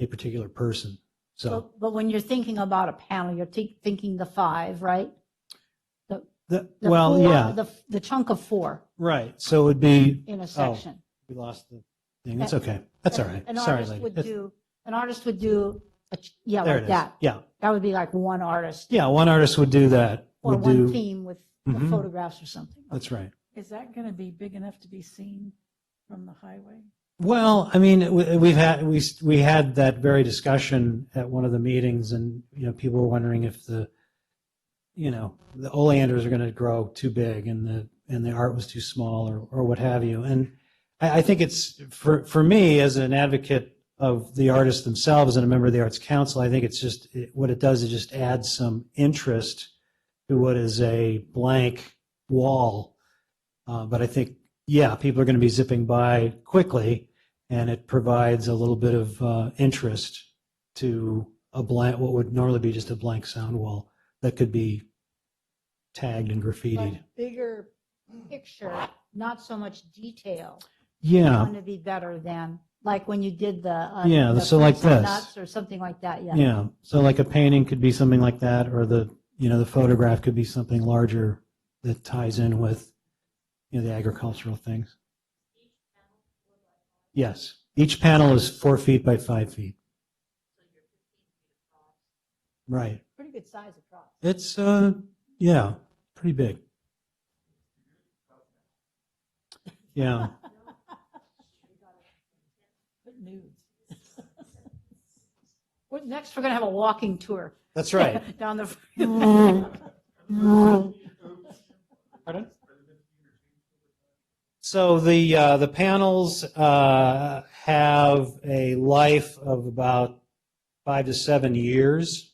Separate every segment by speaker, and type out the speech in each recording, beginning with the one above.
Speaker 1: a particular person. So
Speaker 2: But, but when you're thinking about a panel, you're thi- thinking the five, right?
Speaker 1: the,
Speaker 2: The
Speaker 1: well,
Speaker 2: four-
Speaker 1: yeah,
Speaker 2: The, the chunk of four
Speaker 1: right. So it'd be,
Speaker 2: in a section.
Speaker 1: we lost the thing. That's okay. That's all right.
Speaker 2: An
Speaker 1: Sorry,
Speaker 2: artist
Speaker 1: lady.
Speaker 2: would
Speaker 1: That's-
Speaker 2: do, an artist would do, a ch- yeah,
Speaker 1: There it
Speaker 2: like
Speaker 1: is.
Speaker 2: that.
Speaker 1: Yeah.
Speaker 2: That would be like one artist
Speaker 1: Yeah. One artist would do that.
Speaker 2: or
Speaker 1: Would
Speaker 2: one
Speaker 1: do, Uh,
Speaker 2: theme with the
Speaker 1: Mhm.
Speaker 2: photographs or something.
Speaker 1: that's right.
Speaker 3: Is that going to be big enough to be seen from the highway?
Speaker 1: Well, I mean, we- we've had, we, we had that very discussion at one of the meetings and, you know, people were wondering if the, you know, the oleanders are going to grow too big and the, and the art was too small or, or what have you. And I, I think it's, for, for me, as an advocate of the artists themselves and a member of the Arts Council, I think it's just, it- what it does is just add some interest to what is a blank wall. Uh, but I think yeah, people are going to be zipping by quickly, and it provides a little bit of uh, interest to a blank, what would normally be just a blank sound wall that could be tagged and graffitied.
Speaker 2: But Bigger picture, not so much detail,
Speaker 1: Yeah,
Speaker 2: going to be better than, like when you did the. uh,
Speaker 1: Yeah,
Speaker 2: the
Speaker 1: so like
Speaker 2: fruits and
Speaker 1: this.
Speaker 2: nuts Or something like that, yeah.
Speaker 1: yeah. So like a painting could be something like that, or the you know the photograph could be something larger that ties in with you know the agricultural things. Yes, each panel is four feet by five feet. Right.
Speaker 2: Pretty good size across.
Speaker 1: It's uh yeah, pretty big. Yeah.
Speaker 3: Put nudes.
Speaker 2: Well, Next, we're going to have a walking tour.
Speaker 1: That's
Speaker 2: Down the.
Speaker 1: Pardon? So the uh, the panels uh, have a life of about five to seven years,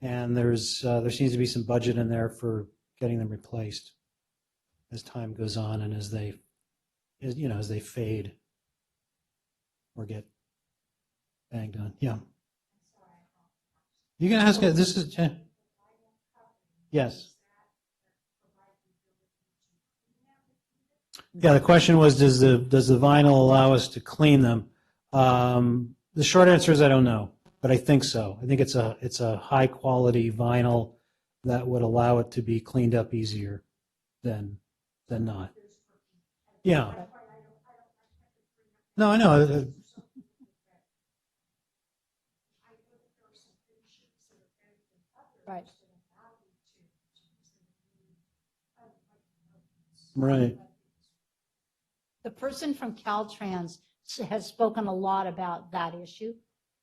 Speaker 1: and there's uh, there seems to be some budget in there for getting them replaced as time goes on and as they, as, you know, as they fade or get banged on. Yeah. You can ask it. This is yes. Yeah, the question was, does the, does the vinyl allow us to clean them? Um, the short answer is I don't know, but I think so. I think it's a, it's a high quality vinyl that would allow it to be cleaned up easier than, than not. Yeah. No, I know. uh,
Speaker 2: Right.
Speaker 1: Right.
Speaker 2: The person from Caltrans s- has spoken a lot about that issue.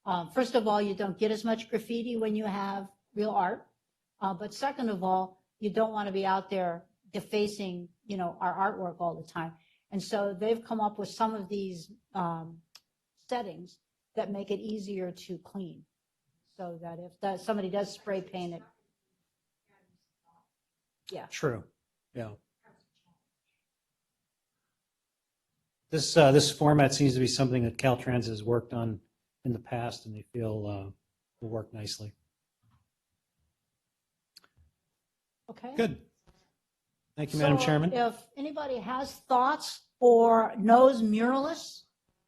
Speaker 2: Um, First of all, you don't get as much graffiti when you have real art. Uh, But second of all, you don't want to be out there defacing, you know, our artwork all the time. And so they've come up with some of these um, settings that make it easier to clean. So that if that- somebody does spray paint it,
Speaker 1: True. Yeah. This, uh, this format seems to be something that Caltrans has worked on in the past and they feel, uh, will work nicely.
Speaker 2: okay?
Speaker 1: Good. Thank you, Madam
Speaker 2: So
Speaker 1: Chairman.
Speaker 2: If anybody has thoughts or knows muralists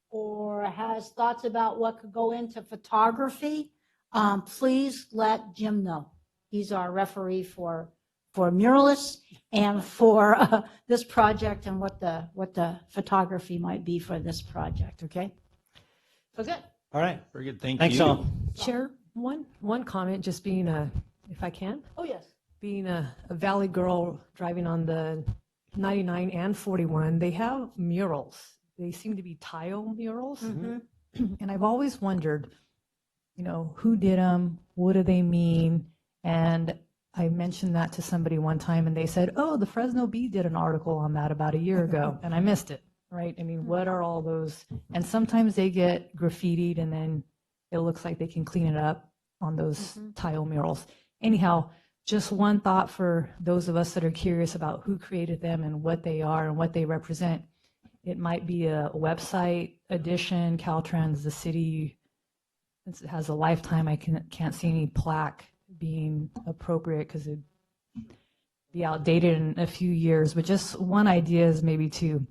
Speaker 2: or has thoughts about what could go into photography, um, please let Jim know. He's our referee for, for muralists and for uh, this project and what the, what the photography might be for this project, okay? So good.
Speaker 1: All right.
Speaker 4: Very good, thank you.
Speaker 1: Thanks all.
Speaker 5: Chair, one, one comment, just being a, if I can,
Speaker 2: Oh, yes.
Speaker 5: being a a Valley girl driving on the 99 and 41, they have murals. They seem to be tile murals. Mm-hmm. And I've always wondered, you know, who did them? What do they mean? And I mentioned that to somebody one time and they said, oh, the Fresno Bee did an article on that about a year ago and I missed it, right? I mean, what are all those? And sometimes they get graffitied and then it looks like they can clean it up on those
Speaker 2: Mhm.
Speaker 5: tile murals. Anyhow, just one thought for those of us that are curious about who created them and what they are and what they represent. It might be a website edition, Caltrans, the city, since it has a lifetime, I can, can't see any plaque being appropriate because it'd be outdated in a few years, but just one idea is maybe to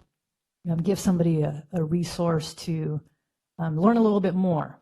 Speaker 5: um, give somebody a, a resource to um, learn a little bit more